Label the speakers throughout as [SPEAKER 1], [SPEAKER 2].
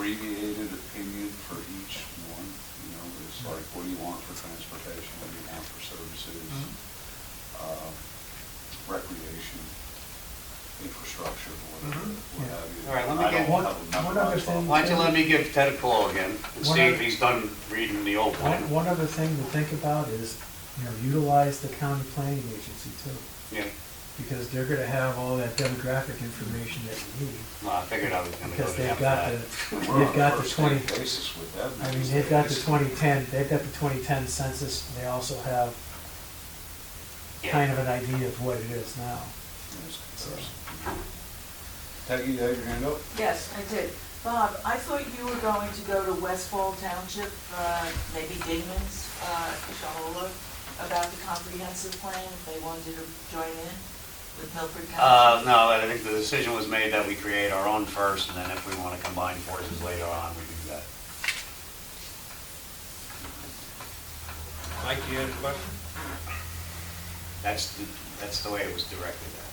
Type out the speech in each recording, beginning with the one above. [SPEAKER 1] abbreviated opinion for each one, you know, it's like, what do you want for transportation, what do you want for services,
[SPEAKER 2] Mm-hmm.
[SPEAKER 1] uh, recreation, infrastructure, whatever,
[SPEAKER 3] Mhm.
[SPEAKER 1] what have you.
[SPEAKER 2] Mm-hmm. All right, let
[SPEAKER 1] I
[SPEAKER 2] me
[SPEAKER 1] don't have
[SPEAKER 2] get-
[SPEAKER 1] a number
[SPEAKER 3] One- one
[SPEAKER 1] on
[SPEAKER 3] other
[SPEAKER 1] top.
[SPEAKER 3] thing-
[SPEAKER 2] Why don't you let me give Ted a call again and see if he's done reading the old
[SPEAKER 3] One,
[SPEAKER 2] one?
[SPEAKER 3] one other thing to think about is, you know, utilize the county planning agency too,
[SPEAKER 2] Yeah,
[SPEAKER 3] because they're gonna have all that demographic information that we need.
[SPEAKER 2] well, I figured I was gonna go
[SPEAKER 3] Because
[SPEAKER 2] to
[SPEAKER 3] they've
[SPEAKER 2] after
[SPEAKER 3] got
[SPEAKER 2] that.
[SPEAKER 3] the,
[SPEAKER 1] And we're on
[SPEAKER 3] they've got the
[SPEAKER 1] first
[SPEAKER 3] twenty,
[SPEAKER 1] name Basis with them.
[SPEAKER 3] I mean, they've got the twenty ten, they've got the twenty ten census, and they also have
[SPEAKER 2] Yeah.
[SPEAKER 3] kind of an idea of what it is now.
[SPEAKER 1] Peggy, you have your hand up?
[SPEAKER 4] Yes, I did. Bob, I thought you were going to go to Westfall Township, uh, maybe Dingman's, uh, Shahola, about the comprehensive plan, if they wanted to join in with Milford
[SPEAKER 2] Uh,
[SPEAKER 4] Township.
[SPEAKER 2] no, I think the decision was made that we create our own first, and then if we wanna combine forces later on, we do that.
[SPEAKER 5] Mike, you had a question?
[SPEAKER 2] That's, the- that's the way it was directed at.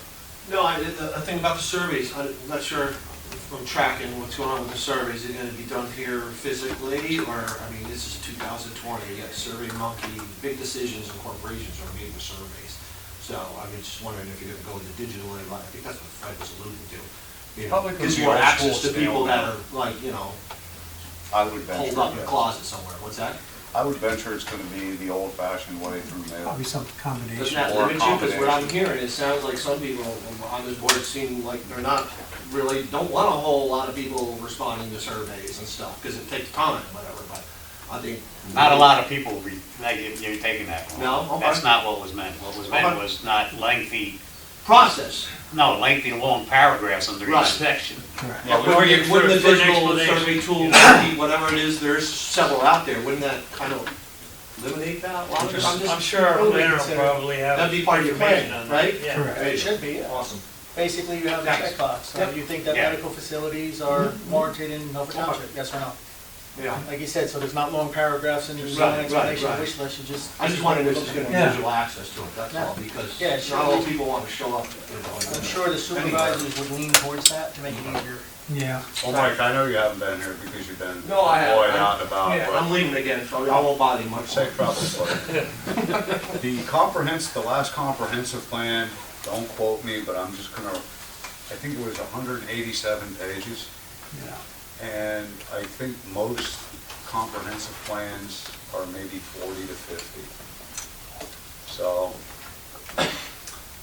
[SPEAKER 5] No, I, the, the thing about the surveys, I'm not sure if I'm tracking what's going on with the surveys. Is it gonna be done here physically, or, I mean, this is two thousand twenty, you got Survey Monkey, big decisions and corporations are made with surveys. So I was just wondering if you're gonna go the digital way, like, I think that's what Fred was alluding to. You know,
[SPEAKER 1] Probably 'cause
[SPEAKER 5] Gives
[SPEAKER 1] the
[SPEAKER 5] more
[SPEAKER 1] old
[SPEAKER 5] access
[SPEAKER 1] school
[SPEAKER 5] to people
[SPEAKER 1] style.
[SPEAKER 5] that are, like, you know,
[SPEAKER 1] I would venture.
[SPEAKER 5] holed up in a
[SPEAKER 1] yes.
[SPEAKER 5] closet somewhere, what's that?
[SPEAKER 1] I would venture it's gonna be the old-fashioned way through mail.
[SPEAKER 3] Probably some
[SPEAKER 5] Doesn't
[SPEAKER 3] combination.
[SPEAKER 5] have to
[SPEAKER 1] Or
[SPEAKER 5] limit you, because what I'm
[SPEAKER 1] combination.
[SPEAKER 5] hearing, it sounds like some people on this board seem like they're not really, don't want a whole lot of people responding to surveys and stuff, because it takes time, whatever, but I think.
[SPEAKER 2] Not a lot of people, re- like, you- you're taking that one.
[SPEAKER 5] No, okay.
[SPEAKER 2] That's not what was meant. What was meant
[SPEAKER 5] Okay.
[SPEAKER 2] was not lengthy,
[SPEAKER 5] Process.
[SPEAKER 2] no, lengthy, long paragraphs under
[SPEAKER 5] Right.
[SPEAKER 2] each section.
[SPEAKER 3] Correct.
[SPEAKER 5] But wouldn't it- wouldn't the digital survey tool, be whatever it is, there's several out there, wouldn't that kind of eliminate that? Well, I'm just- I'm
[SPEAKER 6] I'm
[SPEAKER 5] just-
[SPEAKER 6] sure our
[SPEAKER 5] totally
[SPEAKER 6] planner will
[SPEAKER 5] considered.
[SPEAKER 6] probably have.
[SPEAKER 5] That'd be part of your plan,
[SPEAKER 6] information on that,
[SPEAKER 5] right?
[SPEAKER 6] yeah.
[SPEAKER 3] Correct.
[SPEAKER 5] It should be, Awesome.
[SPEAKER 7] Basically, you have the
[SPEAKER 5] Thanks.
[SPEAKER 7] checkbox. Uh,
[SPEAKER 5] Yep.
[SPEAKER 7] You think that
[SPEAKER 2] Yeah.
[SPEAKER 7] medical facilities are
[SPEAKER 3] Mm-hmm.
[SPEAKER 7] warranted in Milford Township, yes or no?
[SPEAKER 5] Yeah.
[SPEAKER 7] Like you said, so there's not long paragraphs and there's no
[SPEAKER 5] Right, right,
[SPEAKER 7] explanation,
[SPEAKER 5] right.
[SPEAKER 7] of wish list, you just.
[SPEAKER 5] I just wondered if there's gonna be
[SPEAKER 3] Yeah.
[SPEAKER 5] visual access to it, that's all,
[SPEAKER 7] Yeah,
[SPEAKER 5] because
[SPEAKER 7] sure.
[SPEAKER 5] not all people want to show up. you know,
[SPEAKER 7] I'm sure the supervisors would lean towards that to make it easier.
[SPEAKER 3] Yeah.
[SPEAKER 1] Well, Mike, I know you haven't been here because you've been
[SPEAKER 5] No, I haven't.
[SPEAKER 1] employed out and
[SPEAKER 5] Yeah,
[SPEAKER 1] about,
[SPEAKER 5] I'm leaving again, so I won't bother you
[SPEAKER 1] but
[SPEAKER 5] much.
[SPEAKER 1] safe travels, buddy. The comprehensive, the last comprehensive plan, don't quote me, but I'm just gonna, I think it was hundred and eighty-seven pages.
[SPEAKER 3] Yeah.
[SPEAKER 1] And I think most comprehensive plans are maybe 40 to 50. So,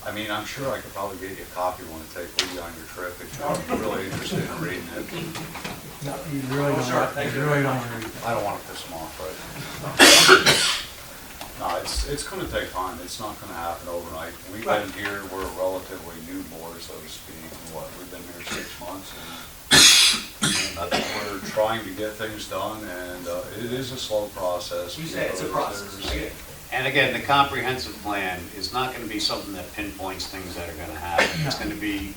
[SPEAKER 1] I mean, I'm sure I could probably get you a copy when to take with you on your trip if you're really interested in reading it.
[SPEAKER 3] No, you really don't,
[SPEAKER 5] sure.
[SPEAKER 3] want-
[SPEAKER 5] Thank
[SPEAKER 3] you
[SPEAKER 5] you
[SPEAKER 3] really
[SPEAKER 5] very
[SPEAKER 3] don't
[SPEAKER 5] much.
[SPEAKER 3] wanna read that.
[SPEAKER 1] I don't want to piss them off, right? No, it's, it's going to take time. It's not going to happen overnight. We've been here, we're a relatively new board, so to speak. and What, we've been here six months and I think we're trying to get things done, and uh, it is a slow process.
[SPEAKER 5] You say it's a
[SPEAKER 1] because
[SPEAKER 5] process,
[SPEAKER 1] there's-
[SPEAKER 5] I get it.
[SPEAKER 2] And again, the comprehensive plan is not gonna be something that pinpoints things that are gonna happen. It's gonna be,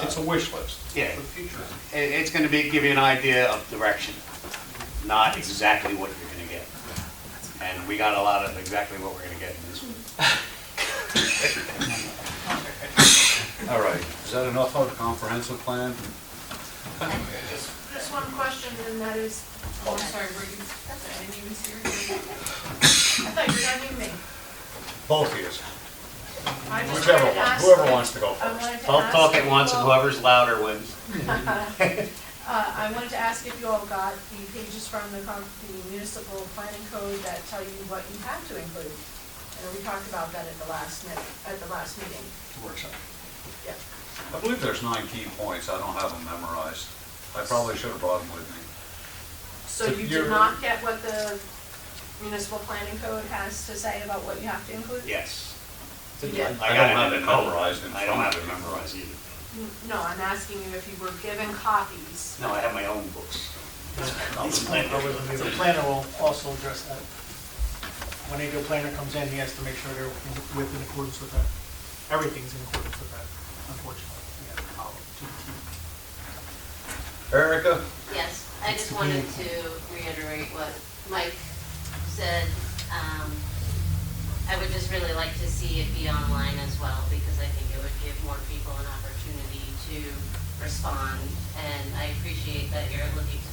[SPEAKER 1] It's a wish list.
[SPEAKER 2] yeah,
[SPEAKER 5] For the future.
[SPEAKER 2] it, it's gonna be, give you an idea of direction, not exactly what you're gonna get. And we got a lot of exactly what we're gonna get in this one.
[SPEAKER 1] All right, is that enough of a comprehensive plan?
[SPEAKER 8] Just just one question, and that is, oh, I'm sorry, were you, I didn't even see your hand. I thought you were done with me.
[SPEAKER 1] Both of yous,
[SPEAKER 8] I just
[SPEAKER 1] whichever
[SPEAKER 8] wanted to
[SPEAKER 1] one,
[SPEAKER 8] ask-
[SPEAKER 1] whoever wants to go
[SPEAKER 8] I
[SPEAKER 1] first.
[SPEAKER 8] wanted to
[SPEAKER 2] Don't talk
[SPEAKER 8] ask
[SPEAKER 2] at once,
[SPEAKER 8] if
[SPEAKER 2] and
[SPEAKER 8] you all-
[SPEAKER 2] whoever's louder wins.
[SPEAKER 8] Uh, I wanted to ask if you all got the pages from the con- the municipal planning code that tell you what you have to include. And we talked about that at the last minute, at the last meeting.
[SPEAKER 1] Workshop.
[SPEAKER 8] Yeah.
[SPEAKER 1] I believe there's nine key points, I don't have them memorized. I probably should have brought them with me.
[SPEAKER 8] So
[SPEAKER 1] So
[SPEAKER 8] you
[SPEAKER 1] you're-
[SPEAKER 8] did not get what the municipal planning code has to say about what you have to include?
[SPEAKER 2] Yes.
[SPEAKER 8] You did?
[SPEAKER 1] I
[SPEAKER 2] got
[SPEAKER 1] don't have it
[SPEAKER 2] memo-
[SPEAKER 1] memorized in
[SPEAKER 2] I don't
[SPEAKER 1] front of
[SPEAKER 2] have it
[SPEAKER 1] me.
[SPEAKER 2] memorized either.
[SPEAKER 8] N- No, I'm asking you if you were given copies
[SPEAKER 2] No, I have my own books.
[SPEAKER 7] I The planner will also address that. When a new planner comes in, he has to make sure they're in- with, in accordance with that. Everything's in accordance with that, unfortunately. We have to follow to the T.
[SPEAKER 1] Erica?
[SPEAKER 9] Yes, I just wanted to reiterate what Mike said. Um, I would just really like to see it be online as well, because I think it would give more people an opportunity to respond. And I appreciate that you're looking to